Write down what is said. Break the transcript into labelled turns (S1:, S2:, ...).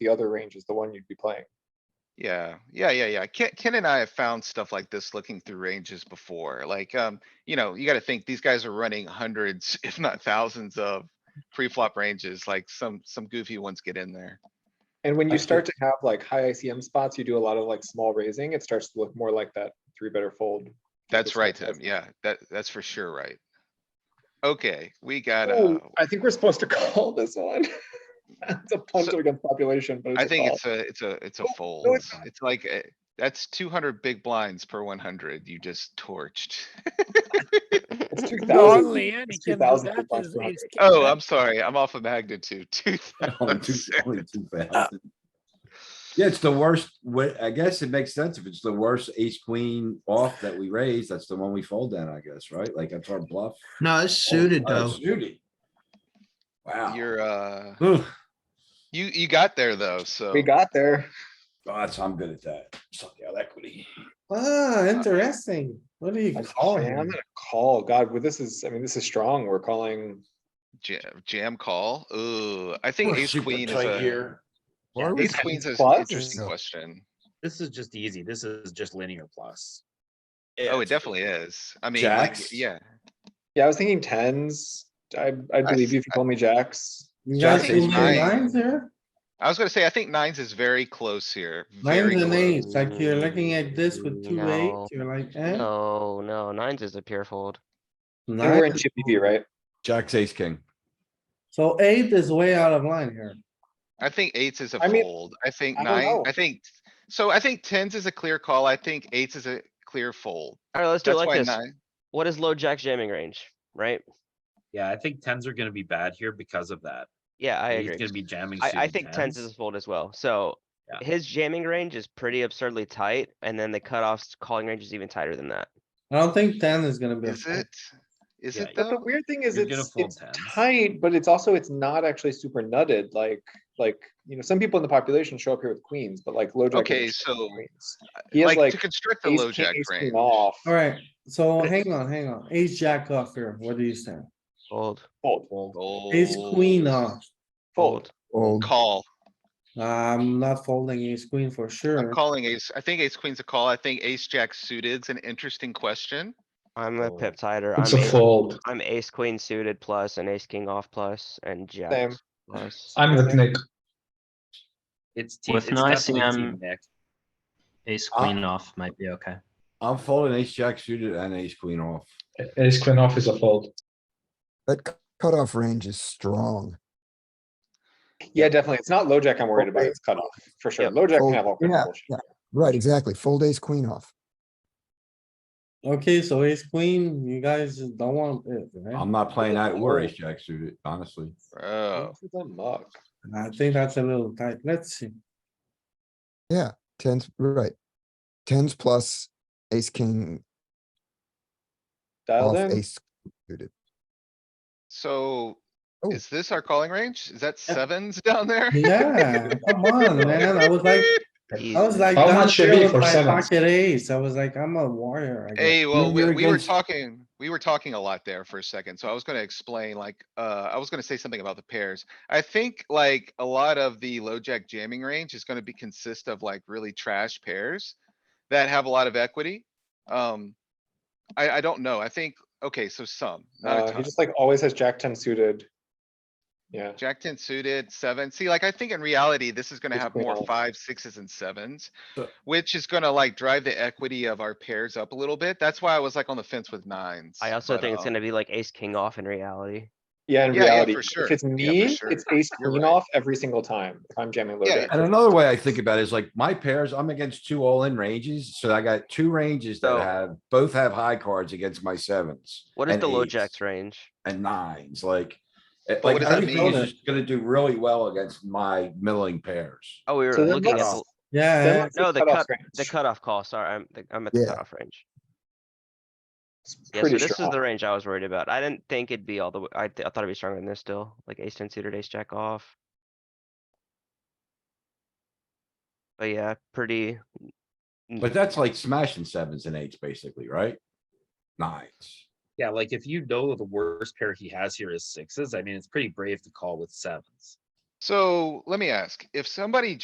S1: the other range is the one you'd be playing.
S2: Yeah, yeah, yeah, yeah. Ken, Ken and I have found stuff like this looking through ranges before, like, um, you know, you gotta think, these guys are running hundreds, if not thousands of pre-flop ranges, like some, some goofy ones get in there.
S1: And when
S3: I
S1: you
S3: see.
S1: start to have like high ICM spots, you do a lot of like small raising, it starts to look more like that three better fold.
S2: That's right, Tim.
S1: Tim.
S2: Yeah, that, that's for sure, right? Okay, we got, uh,
S1: Oh, I think we're supposed to call this one. It's a punt
S2: So-
S1: against population, but it's
S2: I
S1: a
S2: think
S1: call.
S2: it's a, it's a, it's a
S1: Oh, no,
S2: fold.
S1: it's not.
S2: It's like, uh, that's two hundred big blinds per one hundred. You just torched.
S1: It's two
S4: No,
S1: thousand.
S4: Leanne,
S1: It's
S4: Kim,
S1: 2,000
S4: that
S1: for Black
S4: is-
S1: Rock.
S4: is-
S2: Oh, I'm sorry. I'm off of magnitude. Two
S3: Only two, only
S2: thousand.
S3: two thousand. Yeah, it's the worst, wa- I guess it makes sense if it's the worst ace queen off that we raise, that's the one we fold down, I guess, right? Like that's our bluff.
S5: No, it's suited
S3: Oh,
S5: though.
S3: Suited. Wow.
S2: You're, uh,
S3: Ugh,
S2: you, you got there though, so.
S1: We got there.
S3: Gosh, I'm good at that. Suck out equity.
S6: Ah, interesting. What do you
S1: I'm
S6: call
S1: I'm
S6: it?
S1: gonna call, God, well, this is, I mean, this is strong, we're calling.
S2: Jam, jam call. Ooh, I think
S3: We're
S2: ace
S3: super
S2: queen is
S3: tight
S2: a,
S3: here.
S7: Yeah,
S2: ace
S7: this,
S1: Ace-queen
S2: queen's an
S1: plus?
S2: interesting
S6: Yeah.
S2: question.
S7: this is just easy. This is just linear plus.
S2: Oh, it definitely is. I mean, like,
S3: Jacks?
S2: yeah,
S1: Yeah, I was thinking tens. I, I believe you if you told me jacks.
S6: You
S3: Jack
S6: guys
S3: is
S6: moving
S2: nine.
S6: lines here?
S2: I was gonna say, I think nines is very close here. Very
S6: Nines and
S2: close.
S6: eights, like you're looking at this with two
S8: No.
S6: eights, you're like, eh?
S8: No, no, nines is a pure fold.
S1: And We're in
S6: nine.
S1: chippy V, right?
S3: Jack's ace king.
S6: So eight is way out of line here.
S2: I think eights is a
S1: I mean,
S2: fold. I think
S1: I don't
S2: nine,
S1: know.
S2: I think, so I think tens is a clear call. I think eights is a clear fold.
S8: Alright, let's do it
S2: That's
S8: like
S2: why
S8: this.
S2: nine,
S8: What is low jack's jamming range, right?
S7: Yeah, I think tens are gonna be bad here because of that.
S8: Yeah, I
S7: He's
S8: agree.
S7: gonna be jamming.
S8: I, I
S7: suited
S8: think tens is a fold as well, so.
S7: Yeah.
S8: His jamming range is pretty absurdly tight, and then the cutoff's calling range is even tighter than that.
S6: I don't think ten is gonna be. a
S2: is
S6: fold.
S2: it? Is
S7: Yeah,
S2: it
S1: But the
S2: though?
S1: weird thing is
S7: You're gonna
S1: it's,
S7: fold
S1: it's
S7: tens.
S1: tight, but it's also, it's not actually super nutted, like, like, you know, some people in the population show up here with queens, but like low jack.
S2: Okay,
S1: is just
S2: so, uh,
S1: queens. He has
S2: Like to
S1: like.
S2: construct the
S1: ace
S2: low
S1: king,
S2: jack
S1: ace queen
S2: range.
S1: Off.
S6: Alright, so hang on, hang on. Ace jack off here. What do you say?
S8: Fold,
S1: Fold,
S6: Ace
S7: Oh.
S6: queen
S2: Fold.
S6: off.
S1: fold.
S8: fold.
S2: Call.
S6: I'm not folding ace queen for
S2: Oh, I'm
S6: sure.
S2: calling ace, I think ace queen's a call. I think ace jack suited's an interesting question.
S8: I'm a
S7: Fold.
S8: pip tighter.
S3: It's
S8: I'm
S3: a
S8: ace-
S3: fold.
S8: I'm ace queen suited plus and ace king off plus and jacks plus.
S1: I'm with Nick.
S7: It's. te-
S9: With
S7: it's
S9: no
S7: definitely
S9: ICM.
S7: team, Nick.
S9: Ace
S3: Uh,
S9: queen off might be okay.
S3: I'm folding ace jack suited and ace queen off.
S1: Ace queen off is a fold.
S10: That cu- cutoff range is strong.
S1: Yeah, definitely. It's not low jack I'm worried about. It's cutoff for sure.
S8: Yep.
S1: Low jack can
S10: Oh,
S1: have all kinds
S10: yeah,
S1: of bullshit.
S10: yeah. Right, exactly. Fold ace queen off.
S6: Okay, so ace queen, you guys don't want it, right?
S3: I'm not playing that or ace
S1: fold.
S3: jack suited, honestly.
S2: Bro,
S1: Into the muck.
S6: I think that's a little tight. Let's see.
S10: Tens, right. Tens plus ace king
S1: Dialed
S10: off
S1: in.
S10: ace.
S2: so
S10: Oh.
S2: is this our calling range? Is that sevens down there?
S6: Yeah, come on, man. I was like, I was
S8: Jesus.
S6: like,
S3: How
S6: down
S3: much should
S6: here
S3: be
S6: with
S3: for
S6: my
S3: sevens?
S6: pocket ace. I was like, I'm a warrior. I guess.
S2: Hey, well, we,
S3: you're
S2: we were
S3: against-
S2: talking, we were talking a lot there for a second, so I was gonna explain, like, uh, I was gonna say something about the pairs. I think like a lot of the low jack jamming range is gonna be consist of like really trash pairs that have a lot of equity. Um, I, I don't know. I think, okay, so some, not a
S1: Uh, he
S2: ton.
S1: just like always has jack ten suited. Yeah,
S2: Jack ten suited, seven. See, like, I think in reality, this is gonna
S1: It's
S2: have more
S1: all-
S2: fives, sixes and sevens.
S3: So-
S2: Which is gonna like drive the equity of our pairs up a little bit. That's why I was like on the fence with nines.
S8: I also
S2: but,
S8: think it's
S2: uh,
S8: gonna be like ace king off in reality.
S1: yeah, in
S2: Yeah, yeah,
S1: reality,
S2: for sure.
S1: if it's
S2: Yeah, for
S1: me,
S2: sure.
S1: it's ace
S2: You're
S1: queen
S2: right.
S1: off every single time. If I'm jamming low
S2: Yeah,
S1: jack.
S3: And another way I think about it is like my pairs, I'm against two all in ranges, so I got two ranges
S8: So-
S3: that have, both have high cards against my sevens.
S8: What is
S3: and
S8: the low
S3: eights
S8: jack's range?
S3: And nines, like, it-
S2: But
S3: like
S2: what does that
S3: everything
S6: mean?
S3: is just gonna do really well against my milling pairs.
S8: Oh, we were
S1: So then
S8: looking at,
S1: let's-
S8: the-
S1: Then
S6: Yeah,
S1: let's do
S8: Uh, no, the
S1: cutoff
S8: cut-
S1: range.
S8: the cutoff call, sorry, I'm, the- I'm at the
S10: Yeah.
S8: cutoff range.
S1: It's
S8: Yeah, so
S1: pretty
S8: this is
S1: strong.
S8: the range I was worried about. I didn't think it'd be all the way, I, th- I thought it'd be stronger than this still, like ace ten suited, ace jack off. But yeah, pretty,
S2: Oh.
S3: But that's like smashing sevens and eights basically, right? Nines.
S7: Yeah, like if you know the worst pair he has here is sixes, I mean, it's pretty brave to call with sevens.
S2: So let me ask, if somebody